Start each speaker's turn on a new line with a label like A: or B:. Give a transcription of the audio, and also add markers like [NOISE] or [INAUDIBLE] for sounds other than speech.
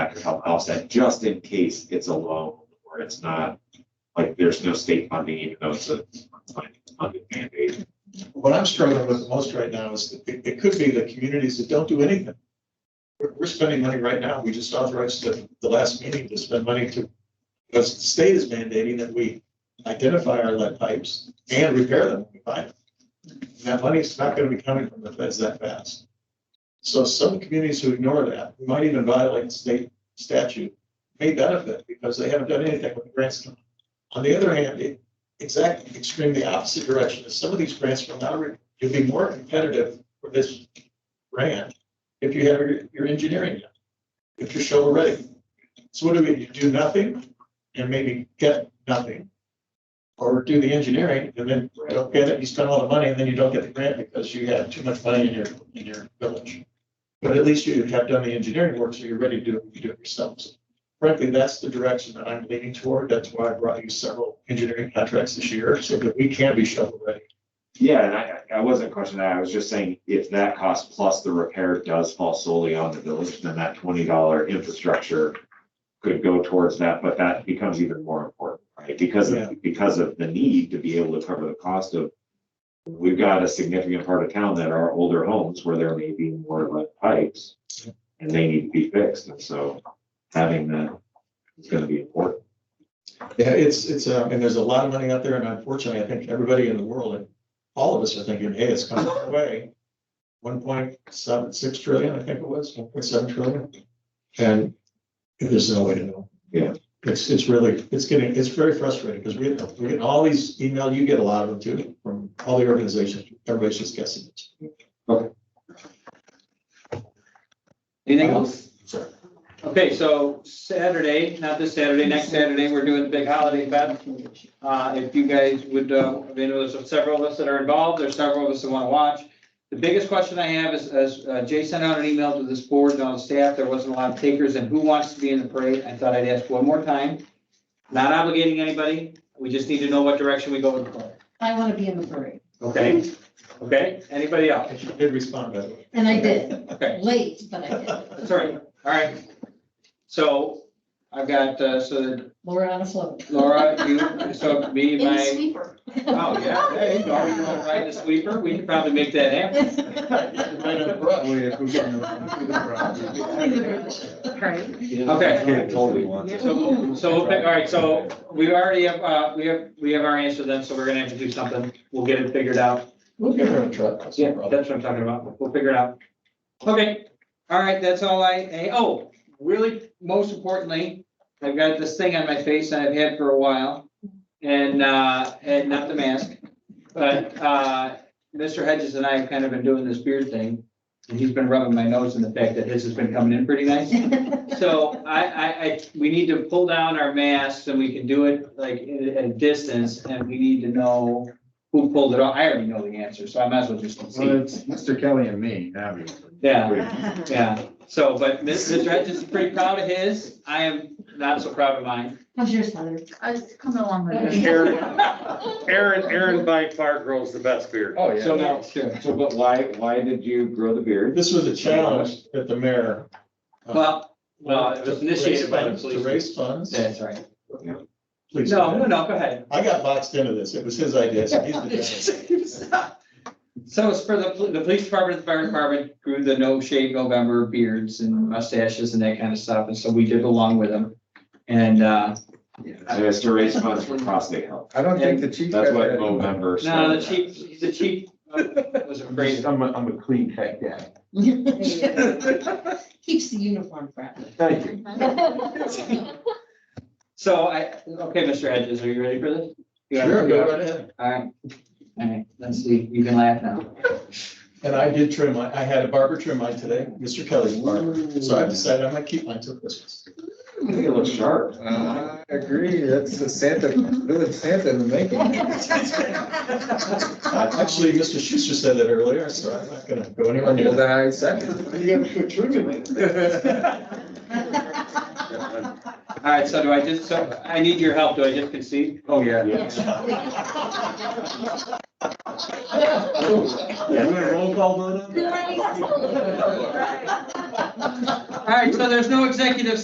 A: have to help offset just in case it's a loan or it's not, like, there's no state funding, even though it's a funded mandate.
B: What I'm struggling with the most right now is that it, it could be the communities that don't do anything. We're, we're spending money right now. We just authorized the, the last meeting to spend money to, because the state is mandating that we identify our lead pipes and repair them when we find them. And That money's not gonna be coming from the feds that fast. So some communities who ignore that, who might even violate state statute, may benefit because they haven't done anything with the grants. On the other hand, it, exactly, extremely opposite direction. If some of these grants from now, you'd be more competitive for this grant if you have your, your engineering done, if you're shovel ready. So what do we, do nothing and maybe get nothing? Or do the engineering and then you don't get it, you spend all the money and then you don't get the grant because you have too much money in your, in your village. But at least you have done the engineering work, so you're ready to do it, you do it yourselves. Frankly, that's the direction that I'm leaning toward. That's why I brought you several engineering contracts this year, so that we can be shovel ready.
A: Yeah, and I, I wasn't questioning that, I was just saying, if that cost plus the repair does fall solely on the village, then that twenty dollar infrastructure could go towards that, but that becomes even more important, right? Because
B: Yeah.
A: of, because of the need to be able to cover the cost of, we've got a significant part of town that are older homes where there may be more lead pipes, and they need to be fixed, and so having that is gonna be important.
B: Yeah, it's, it's, uh, and there's a lot of money out there, and unfortunately, I think everybody in the world, and all of us are thinking, hey, it's coming our way. One point seven, six trillion, I think it was, one point seven trillion. And there's no way to know.
A: Yeah.
B: It's, it's really, it's getting, it's very frustrating, because we, we're getting all these email, you get a lot of them too, from all the organizations, everybody's just guessing.
C: Anything else?
B: Sorry.
C: Okay, so Saturday, not this Saturday, next Saturday, we're doing the big holiday event. Uh, if you guys would, uh, I mean, there's several of us that are involved, there's several of us that want to watch. The biggest question I have is, as uh, Jay sent out an email to this board and all the staff, there wasn't a lot of takers and who wants to be in the parade? I thought I'd ask one more time. Not obligating anybody, we just need to know what direction we go with the parade.
D: I want to be in the parade.
C: Okay, okay, anybody else?
B: And she did respond, by the way.
D: And I did,
C: Okay.
D: late, but I did.
C: That's all right, all right. So I've got, uh, so
D: Laura on a float.
C: Laura, you, so me,
D: In the
C: my,
D: sweeper.
C: oh, yeah,
D: [LAUGHS]
C: there you go, you wanna ride the sweeper, we could probably make that happen.
B: Right on brush.
E: [LAUGHS]
D: Right.
C: Okay.
E: Yeah, totally want to.
C: So, so, we'll pick- all right, so we already have, uh, we have, we have our answer then, so we're gonna have to do something, we'll get it figured out.
B: We'll give her a try. that's no
C: Yeah,
B: problem.
C: that's what I'm talking about, we'll figure it out. Okay, all right, that's all I, eh, oh, really, most importantly, I've got this thing on my face that I've had for a while. And, uh, and not the mask, but, uh, Mr. Hedges and I have kind of been doing this beard thing. And he's been rubbing my nose in the fact that his has been coming in pretty nice. So I, I, I, we need to pull down our masks and we can do it like at at a distance and we need to know who pulled it off. I already know the answer, so I might as well just
E: Well,
C: see.
E: it's Mr. Kelly and me, obviously.
C: Yeah, yeah. So, but Mr. Hedges is pretty proud of his. I am not so proud of mine.
D: How's yours, Heather?
F: I was coming along with it.
G: Aaron, Aaron, Aaron by far grows the best beard.
E: Oh,
C: So now, sure.
A: So, but why, why did you grow the beard?
B: This was a challenge that the mayor. uh,
C: Well, well, it
B: to
C: was
B: raise
C: initiated by the
B: funds- To
C: police.
B: raise funds.
C: That's right.
B: Please.
C: No, no, no, go ahead.
B: I got boxed into this. It was his idea, so
C: [LAUGHS]
B: he's the judge.
C: So it's for the, pol- the police department, the fire department grew the no shave November beards and mustaches and that kind of stuff, and so we did along with them. And, uh,
A: And it's to raise funds for prostate health.
E: I don't think the chief.
A: That's what
E: has that.
A: November.
C: no, the chief, the chief uh, was afraid.
E: I'm a, I'm a clean cut guy.
D: [LAUGHS] Keeps the uniform fresh. [LAUGHS]
E: Thank you.
C: [LAUGHS]
F: [LAUGHS]
C: So I, okay, Mr. Hedges, are you ready for this? You are-
B: Sure,
C: you
B: go
C: are-
B: right ahead.
C: All right, all right, let's see, you can laugh now.
B: And I did trim my, I had a barber trim mine today, Mr. Kelly's barber. So I decided I'm gonna keep mine till Christmas.
A: I think it looks sharp.
E: I agree, that's the Santa, village Santa in the making.
B: Uh, Actually, Mr. Schuster said that earlier, so I'm not gonna go anywhere near
E: Well,
B: that.
E: then I second. [LAUGHS] You gotta put
C: All right, so do I just, so I need your help, do I just concede?
E: [LAUGHS] Oh, [LAUGHS] yeah.
A: Yes.
E: roll call vote
C: All right, so there's no executive